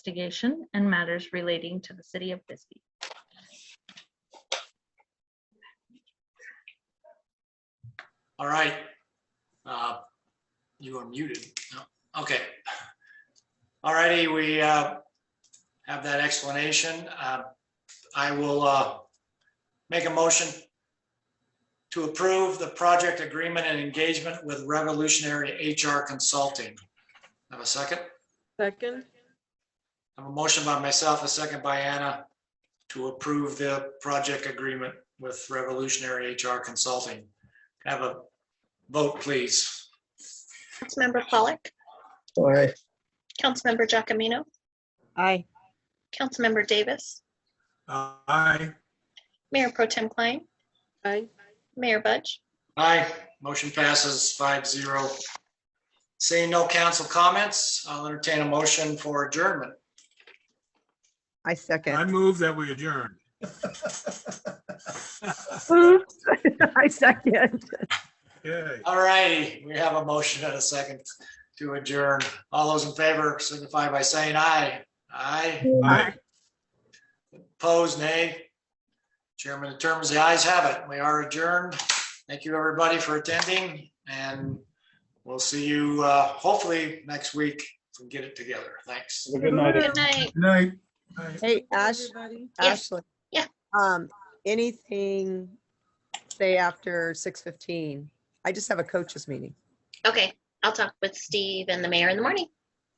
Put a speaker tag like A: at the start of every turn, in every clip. A: investigation and matters relating to the city of Bisbee.
B: All right. Uh, You are muted. No, Okay. All righty, we uh, have that explanation. Uh, I will uh, make a motion to approve the project agreement and engagement with Revolutionary HR Consulting. Have a second?
C: Second,
B: I have a motion by myself, a second by Anna, to approve the project agreement with Revolutionary HR Consulting. Have a vote, please.
D: Councilmember Pollock,
E: Aye.
D: Councilmember Giacominno,
F: Aye.
D: Councilmember Davis,
E: Aye.
D: Mayor Pro Tem Klein,
C: aye,
D: Mayor Budge.
B: Aye, motion passes five zero. Seeing no council comments, I'll entertain a motion for adjournment.
F: I
E: I
F: second.
E: move that we adjourn.
F: Oops. I second.
E: Okay.
B: All righty, we have a motion and a second to adjourn. All those in favor signify by saying aye. Aye,
E: Aye.
B: opposed, nay. Chairman determines the ayes have it. We are adjourned. Thank you, everybody, for attending, and we'll see you uh, hopefully next week. If we can get it together. Thanks.
G: Good night.
D: Good night.
E: Night. Aye.
F: Hey, Ash,
C: everybody.
D: Yes.
F: Ashley.
D: Yeah.
F: Um, anything, say after six fifteen? I just have a coaches meeting.
D: Okay, I'll talk with Steve and the mayor in the morning.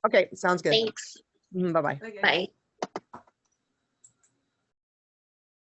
F: Okay, sounds good.
D: Thanks.
F: Mhm, Bye-bye.
C: Okay.
D: Bye.